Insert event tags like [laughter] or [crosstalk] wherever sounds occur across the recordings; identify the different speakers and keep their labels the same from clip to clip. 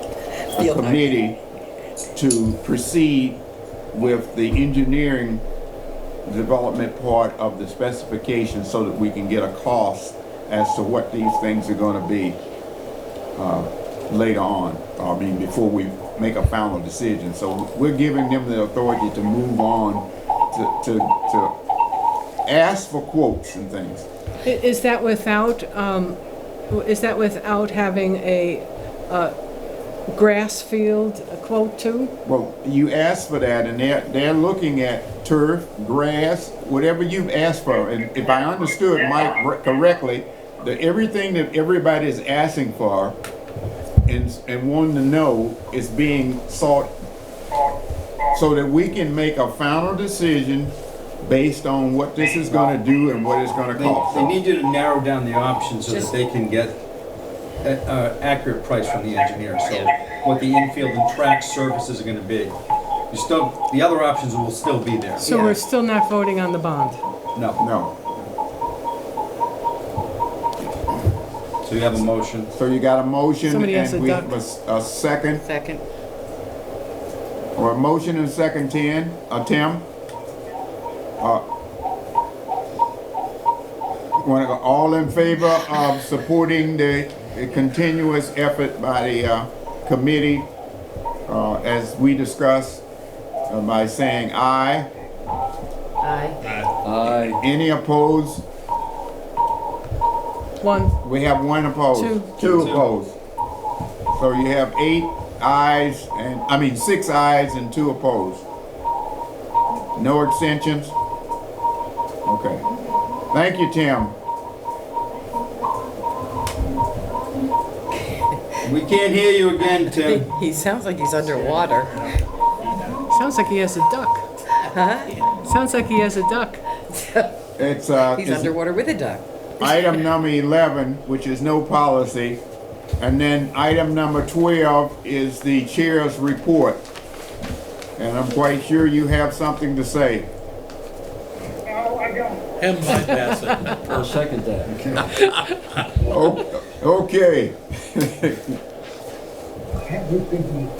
Speaker 1: Field note.
Speaker 2: committee to proceed with the engineering development part of the specification so that we can get a cost as to what these things are gonna be, uh, later on, I mean, before we make a final decision. So we're giving them the authority to move on, to, to, to ask for quotes and things.
Speaker 3: I- Is that without, um, w- is that without having a uh, grass field quote too?
Speaker 2: Well, you asked for that, and they're, they're looking at turf, grass, whatever you've asked for, and if I understood Mike re- correctly, that everything that everybody is asking for and, and wanting to know is being sought so that we can make a final decision based on what this is gonna do and what it's gonna
Speaker 4: They, they
Speaker 2: cost.
Speaker 4: need you to narrow down the options so that
Speaker 1: Just-
Speaker 4: they can get an accurate price from the engineer, so what the infield and track services are gonna be. You still, the other options will still be there.
Speaker 3: So
Speaker 1: Yeah.
Speaker 3: we're still not voting on the bond.
Speaker 4: No,
Speaker 2: No,
Speaker 4: so you have a motion.
Speaker 2: so you got a motion
Speaker 3: Somebody has a
Speaker 2: and we,
Speaker 3: duck.
Speaker 2: have a s- a second,
Speaker 1: Second.
Speaker 2: or a motion and second, Tim, uh, Tim? Uh, wanna go, all in favor of supporting the the continuous effort by the, uh, committee, uh, as we discussed, uh, by saying aye?
Speaker 1: Aye.
Speaker 5: Aye.
Speaker 2: Any opposed?
Speaker 3: One,
Speaker 2: We have one opposed.
Speaker 3: Two.
Speaker 2: Two opposed. So you have eight ayes and, I mean, six ayes and two opposed. No extensions? Okay. Thank you, Tim.
Speaker 4: We can't hear you again, Tim.
Speaker 1: He sounds like he's underwater.
Speaker 3: sounds like he has a duck. Sounds like he has a duck.
Speaker 2: It's, uh,
Speaker 1: He's
Speaker 2: it's
Speaker 1: underwater with a duck.
Speaker 2: [laughs] item number eleven, which is no policy. And then item number twelve is the chair's report. And I'm quite sure you have something to say.
Speaker 6: No, I don't.
Speaker 7: Him bypass it.
Speaker 5: I'll second that.
Speaker 2: [laughs] O- Okay.
Speaker 6: Have you been-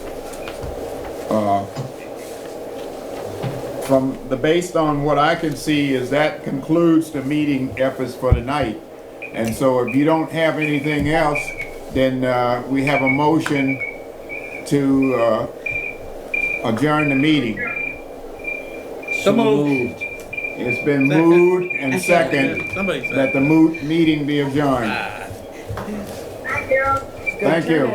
Speaker 2: from the, based on what I can see, is that concludes the meeting efforts for tonight. And so if you don't have anything else, then, uh, we have a motion to, uh, adjourn the meeting.
Speaker 5: So
Speaker 7: moved.
Speaker 5: moved.
Speaker 2: It's been moved and second
Speaker 7: Somebody said. Ah.
Speaker 2: that the moot meeting be adjourned.
Speaker 6: Thank you.
Speaker 2: Thank you.